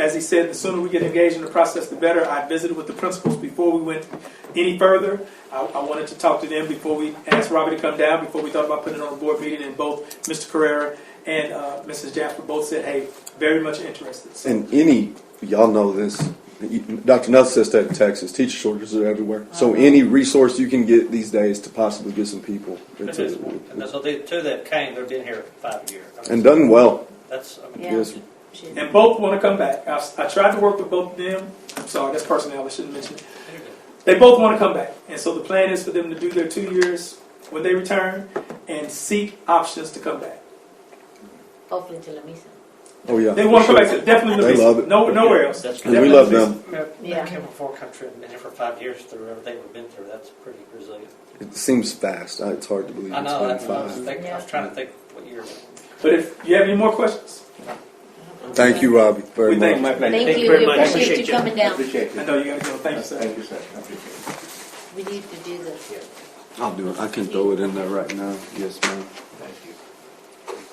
as he said, the sooner we get engaged in the process, the better. I visited with the principals before we went any further. I, I wanted to talk to them before we asked Robbie to come down, before we thought about putting it on a board meeting, and both Mr. Carrera and uh, Mrs. Jasper both said, hey, very much interested. So, And any, y'all know this, Dr. Nutt says that in Texas, teacher shortages are everywhere. So Uh-huh. any resource you can get these days to possibly get some people. it's a- And so the two that came, they've been here five years. I mean, And done well, That's, I mean, Yeah. yes. She- and both want to come back. I, I tried to work with both of them. I'm sorry, that's personnel, I shouldn't mention it. They both want to come back. And so the plan is for them to do their two years when they return and seek options to come back. Hopefully to La Misa. Oh, yeah. They want to for come back sure. to definitely They Louisiana. love it. No, nowhere else. That's And we love Definitely them. They came from four country and been here for five years through everything we've been through. That's pretty resilient. It seems fast. I- It's hard to believe I it's know, been that's what I was five. thinking, I was trying to think what year. But if you have any more questions, Thank you, Robbie, very we thank much. you. Thank Thank you you, we very much. appreciate you coming down. Appreciate I it. know you got to go. Thank you, sir. Thank you, sir. I appreciate it. We need to do this. I'll do it. I can throw it in there right now. Yes, ma'am. Thank you.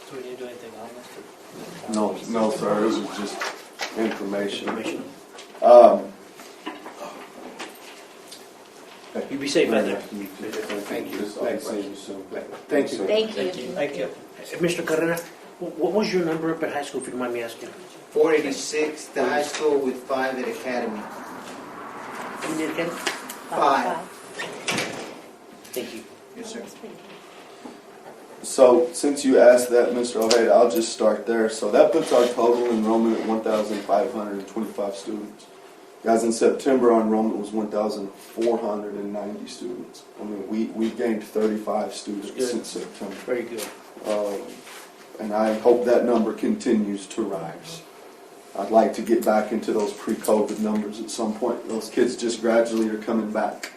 So we need to do anything on this? No, no, sir. This is just information. Information. Um, You be safe out there. Thank you. Just, I'll see you soon. Thank you. Thank you. Thank you. Thank you. Mr. Carrera, wh- what was your number up at high school, if you don't mind me asking? 486, the high school with five at academy. You did, Ken? Five. Thank you. Yes, sir. So, since you asked that, Mr. Ojeda, I'll just start there. So that puts our total enrollment at 1,525 students. Guys, in September, our enrollment was 1,490 students. I mean, we, we gained 35 students That's good. since September. Very good. Um, and I hope that number continues to rise. I'd like to get back into those pre-COVID numbers at some point. Those kids just gradually are coming back.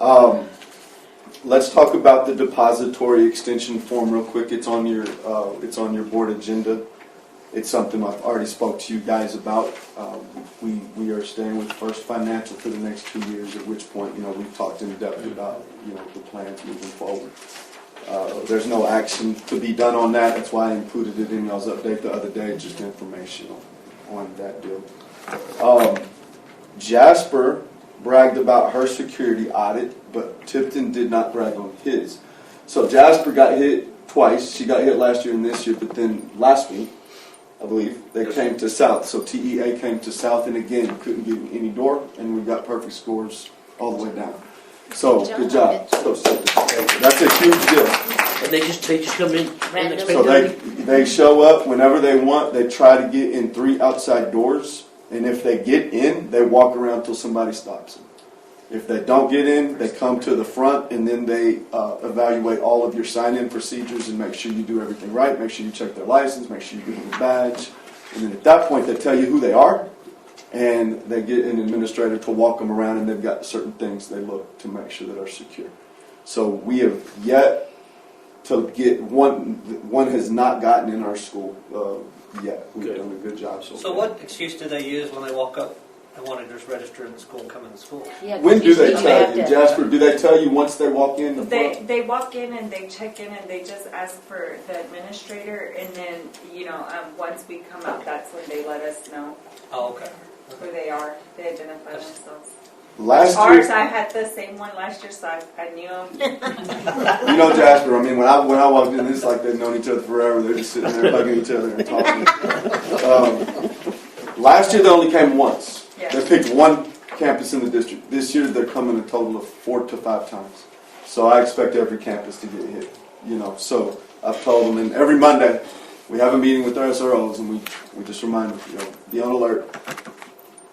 Um, let's talk about the depository extension form real quick. It's on your uh, it's on your board agenda. It's something I've already spoke to you guys about. Um, we we are staying with First Financial for the next two years. At which point, you know, we've talked in depth about you know the plans moving forward. Uh, There's no action to be done on that, that's why I included it in y'all's update the other day, just informational on that deal. Um, Jasper bragged about her security audit, but Tipton did not brag on his. So Jasper got hit twice, she got hit last year and this year, but then last week, I believe, they came to South, so TEA came to South and again, couldn't get in any door, and we got perfect scores all the way down. So, Good good job. job. So, That's a huge deal. And they just, they just come in Randomly. So they, they show up whenever they want. They try to get in three outside doors, and if they get in, they walk around till somebody stops them. If they don't get in, they come to the front, and then they uh, evaluate all of your sign-in procedures and make sure you do everything right. Make sure you check their license. Make sure you give them a badge, and then at that point, they tell you who they are, and they get an administrator to walk them around, and they've got certain things they look to make sure that are secure. So we have yet to get one one has not gotten in our school uh, yet. We've Good. done a good job so So far. what excuse do they use when they walk up and want to just register in the school and come in the school? Yeah, 'cause When do usually they you tell have you, to- Jasper? Do they tell you once they walk in the They, front? they walk in and they check in and they just ask for the administrator and then, you know, um, once we come up, that's when they let us know Oh, okay. who they are. They identify themselves. Last Ours, year, I had the same one last year, so I, I knew him. you know, Jasper. I mean, when I when I walked in, it's like they've known each other forever. They're just sitting there hugging each other and talking. um, last year they only came once. Yeah. They picked one campus in the district. This year they're coming a total of four to five times. So I expect every campus to get hit. You know, so I've told them, and every Monday we have a meeting with our SROs, and we we just remind them, you know, be on alert.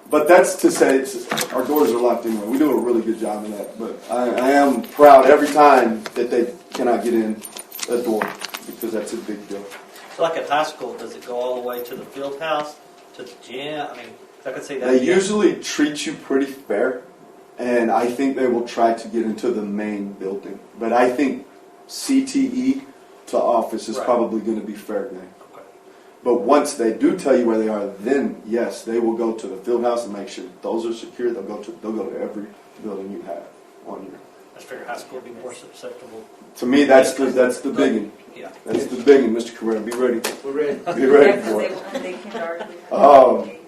But that's to say, it's, our doors are locked anyway. We do a really good job of that. But I, I am proud every time that they cannot get in a door because that's a big deal. So like at high school, does it go all the way to the field house, to the gym? I mean, 'cause I could see that. They usually treat you pretty fair, and I think they will try to get into the main building. But I think CTE to office is Right. probably going to be fair game. But once they do tell you where they are, then yes, they will go to the field house and make sure those are secure. They'll go to they'll go to every building you have on your. I figure high school would be more susceptible. To me, that's the that's the big one. Yeah. That's the big one, Mr. Carrera. Be ready. We're ready. Be Yeah, ready 'cause for they, it. when they came to our. Um,